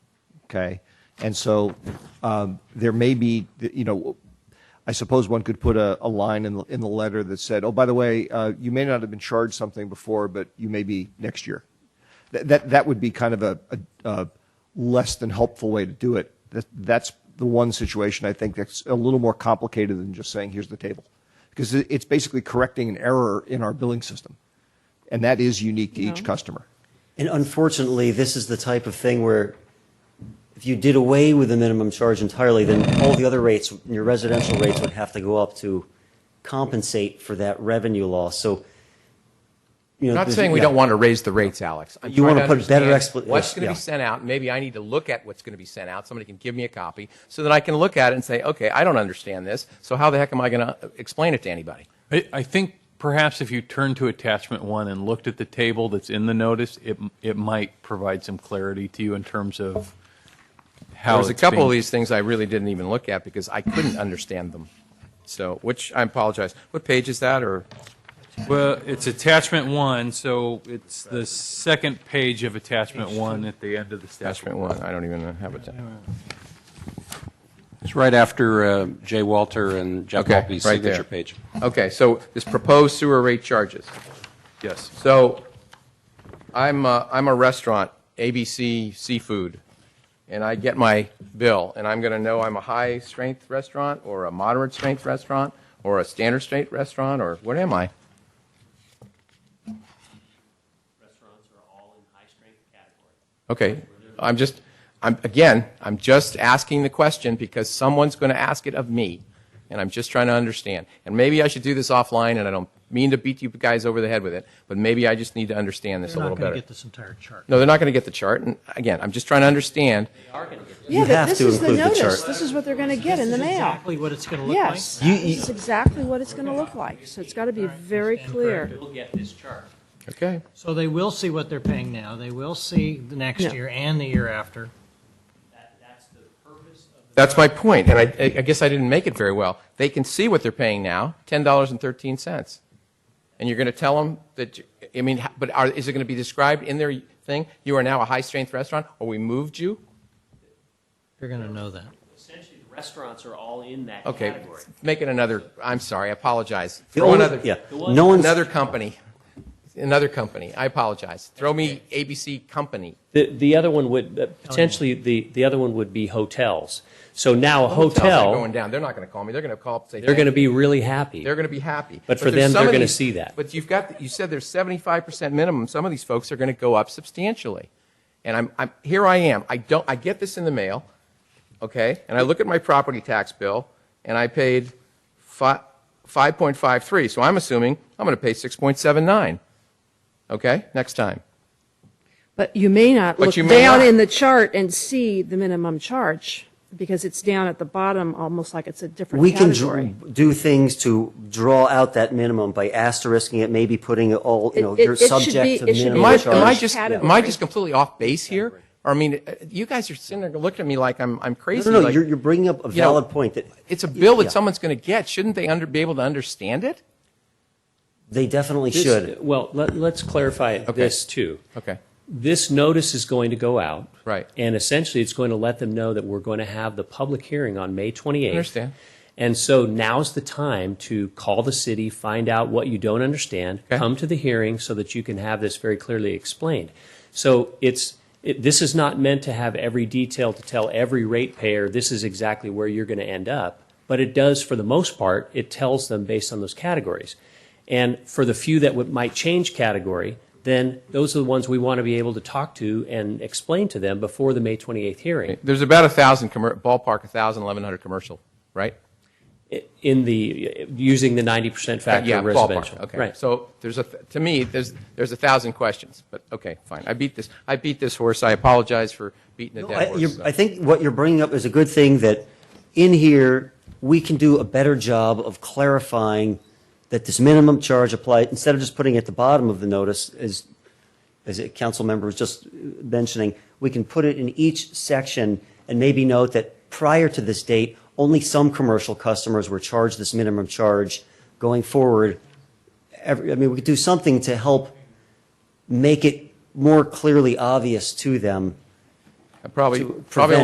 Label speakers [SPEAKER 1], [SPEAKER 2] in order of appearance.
[SPEAKER 1] Okay, and so um, there may be, you know, I suppose one could put a, a line in the, in the letter that said, "Oh, by the way, uh, you may not have been charged something before, but you may be next year." That that, that would be kind of a, a, a less than helpful way to do it. That, that's the one situation I think that's a little more complicated than just saying, "Here's the table," because it, it's basically correcting an error in our billing system, and that is unique to each
[SPEAKER 2] Yeah.
[SPEAKER 1] customer.
[SPEAKER 3] And unfortunately, this is the type of thing where if you did away with the minimum charge entirely, then all the other rates, your residential rates would have to go up to compensate for that revenue loss. So, you know,
[SPEAKER 4] I'm not
[SPEAKER 3] there's-
[SPEAKER 4] saying we
[SPEAKER 3] yeah.
[SPEAKER 4] don't want to raise the rates, Alex. I'm
[SPEAKER 3] You
[SPEAKER 4] trying
[SPEAKER 3] wanna put better
[SPEAKER 4] understand
[SPEAKER 3] expla-
[SPEAKER 4] What's
[SPEAKER 3] yes,
[SPEAKER 4] going to
[SPEAKER 3] yeah.
[SPEAKER 4] be sent out? Maybe I need to look at what's going to be sent out. Somebody can give me a copy so that I can look at it and say, okay, I don't understand this. So how the heck am I going to explain it to anybody?
[SPEAKER 5] I, I think perhaps if you turned to attachment one and looked at the table that's in the notice, it it might provide some clarity to you in terms of how
[SPEAKER 4] There's a
[SPEAKER 5] it's
[SPEAKER 4] couple
[SPEAKER 5] being-
[SPEAKER 4] of these things I really didn't even look at because I couldn't understand them. So, which I apologize. What page is that? Or
[SPEAKER 5] Well, it's attachment one, so it's the second page of attachment one at the end of the
[SPEAKER 4] attachment
[SPEAKER 5] statute.
[SPEAKER 4] one? I don't even have it.
[SPEAKER 6] It's right after uh, Jay Walter and Jeff
[SPEAKER 4] Okay,
[SPEAKER 6] Volpe's
[SPEAKER 4] right there.
[SPEAKER 6] signature page.
[SPEAKER 4] Okay, so this proposed sewer rate charges.
[SPEAKER 5] Yes.
[SPEAKER 4] So I'm a, I'm a restaurant, ABC Seafood, and I get my bill, and I'm going to know I'm a high strength restaurant or a moderate strength restaurant or a standard strength restaurant or what am I?
[SPEAKER 7] restaurants are all in high-strength category.
[SPEAKER 4] Okay, I'm just, I'm, again, I'm just asking the question because someone's going to ask it of me, and I'm just trying to understand. And maybe I should do this offline, and I don't mean to beat you guys over the head with it, but maybe I just need to understand this a
[SPEAKER 8] They're
[SPEAKER 4] little
[SPEAKER 8] not going to
[SPEAKER 4] better.
[SPEAKER 8] get this entire chart.
[SPEAKER 4] No, they're not going to get the chart, and again, I'm just trying to understand.
[SPEAKER 2] Yeah,
[SPEAKER 3] have
[SPEAKER 2] but this
[SPEAKER 3] to
[SPEAKER 2] is the
[SPEAKER 3] include the
[SPEAKER 2] notice.
[SPEAKER 3] chart.
[SPEAKER 2] This is what they're going to get in the
[SPEAKER 8] This is
[SPEAKER 2] mail.
[SPEAKER 8] Exactly what it's going to look like.
[SPEAKER 2] Yes,
[SPEAKER 3] You-
[SPEAKER 2] this is exactly what it's going to look like. So it's got to be very clear.
[SPEAKER 7] We'll get this chart.
[SPEAKER 4] Okay.
[SPEAKER 8] So they will see what they're paying now. They will see the
[SPEAKER 2] Yeah.
[SPEAKER 8] next year and the year after.
[SPEAKER 7] That, that's the purpose of the.
[SPEAKER 4] That's my point, and I, I guess I didn't make it very well. They can see what they're paying now, ten dollars and thirteen cents, and you're going to tell them that. you- I mean, h- but are, is it going to be described in their thing? You are now a high strength restaurant, or we moved you.
[SPEAKER 8] You're going to know that.
[SPEAKER 7] Essentially, the restaurants are all in that
[SPEAKER 4] Okay,
[SPEAKER 7] category.
[SPEAKER 4] make it another. I'm sorry, I apologize.
[SPEAKER 3] The
[SPEAKER 4] Throw
[SPEAKER 3] only-
[SPEAKER 4] another.
[SPEAKER 3] yeah. No one's-
[SPEAKER 4] another company, another company. I apologize. Throw me ABC company.
[SPEAKER 7] The, the other one would, uh, potentially, the, the other one would be hotels. So now a
[SPEAKER 4] Hotels are going
[SPEAKER 7] hotel,
[SPEAKER 4] down. They're not going to call me. They're going to call up and say
[SPEAKER 7] they're
[SPEAKER 4] "Thank
[SPEAKER 7] going to
[SPEAKER 4] you."
[SPEAKER 7] be really happy.
[SPEAKER 4] They're going to be happy.
[SPEAKER 7] But for
[SPEAKER 4] there's
[SPEAKER 7] them,
[SPEAKER 4] some
[SPEAKER 7] they're
[SPEAKER 4] of
[SPEAKER 7] gonna
[SPEAKER 4] these-
[SPEAKER 7] see that.
[SPEAKER 4] But you've got, you said there's 75% minimum. Some of these folks are going to go up substantially. And I'm, I'm, here I am. I don't, I get this in the mail, okay? And I look at my property tax bill and I paid fi- 5.53. So I'm assuming I'm going to pay 6.79. Okay? Next time.
[SPEAKER 2] But you may not
[SPEAKER 4] But
[SPEAKER 2] look
[SPEAKER 4] you may
[SPEAKER 2] down
[SPEAKER 4] not.
[SPEAKER 2] in the chart and see the minimum charge because it's down at the bottom, almost like it's a different
[SPEAKER 3] we can
[SPEAKER 2] category.
[SPEAKER 3] dr- do things to draw out that minimum by asterisking it, maybe putting it all, you know,
[SPEAKER 2] It- it-
[SPEAKER 3] you're
[SPEAKER 2] it should
[SPEAKER 3] subject
[SPEAKER 2] be-
[SPEAKER 3] to
[SPEAKER 2] it should
[SPEAKER 3] minimum
[SPEAKER 4] Am I,
[SPEAKER 2] be-
[SPEAKER 3] charge.
[SPEAKER 4] am I
[SPEAKER 2] Each
[SPEAKER 4] just, am I
[SPEAKER 2] category.
[SPEAKER 4] just completely off base here? Or I mean, uh, you guys are sitting there looking at me like I'm, I'm
[SPEAKER 3] No,
[SPEAKER 4] crazy.
[SPEAKER 3] no, no,
[SPEAKER 4] like-
[SPEAKER 3] you're, you're bringing up a
[SPEAKER 4] you know,
[SPEAKER 3] valid point that
[SPEAKER 4] It's a bill that
[SPEAKER 3] Yeah.
[SPEAKER 4] someone's going to get. Shouldn't they under, be able to understand it?
[SPEAKER 3] they definitely
[SPEAKER 7] This-
[SPEAKER 3] should.
[SPEAKER 7] Well, let, let's clarify this too.
[SPEAKER 4] Okay.
[SPEAKER 7] This notice is going to go out.
[SPEAKER 4] Right.
[SPEAKER 7] And essentially, it's going to let them know that we're going to have the public hearing on May 28th.
[SPEAKER 4] Understand.
[SPEAKER 7] And so now's the time to call the city, find out what you don't understand,
[SPEAKER 4] Okay.
[SPEAKER 7] come to the hearing so that you can have this very clearly explained. So it's, it, this is not meant to have every detail to tell every ratepayer this is exactly where you're going to end up, but it does for the most part, it tells them based on those categories. And for the few that would, might change category, then those are the ones we want to be able to talk to and explain to them before the May 28th hearing.
[SPEAKER 4] There's about a thousand commer- ballpark, a thousand, eleven hundred commercial, right?
[SPEAKER 7] I- In the, using the 90% factor
[SPEAKER 4] yeah,
[SPEAKER 7] of residential.
[SPEAKER 4] ballpark. Okay.
[SPEAKER 7] Right.
[SPEAKER 4] So there's a th- to me there's there's a thousand questions, but okay, fine. I beat this. I beat this horse. I apologize for beating a
[SPEAKER 3] No,
[SPEAKER 4] dead
[SPEAKER 3] I,
[SPEAKER 4] horse.
[SPEAKER 3] you're-
[SPEAKER 4] so.
[SPEAKER 3] I think what you're bringing up is a good thing that in here, we can do a better job of clarifying that this minimum charge applied, instead of just putting it at the bottom of the notice, as, as a council member was just uh, mentioning, we can put it in each section and maybe note that prior to this date, only some commercial customers were charged this minimum charge. Going forward, every, I mean, we could do something to help make it more clearly obvious to them
[SPEAKER 4] I probably
[SPEAKER 3] to
[SPEAKER 4] probably
[SPEAKER 3] prevent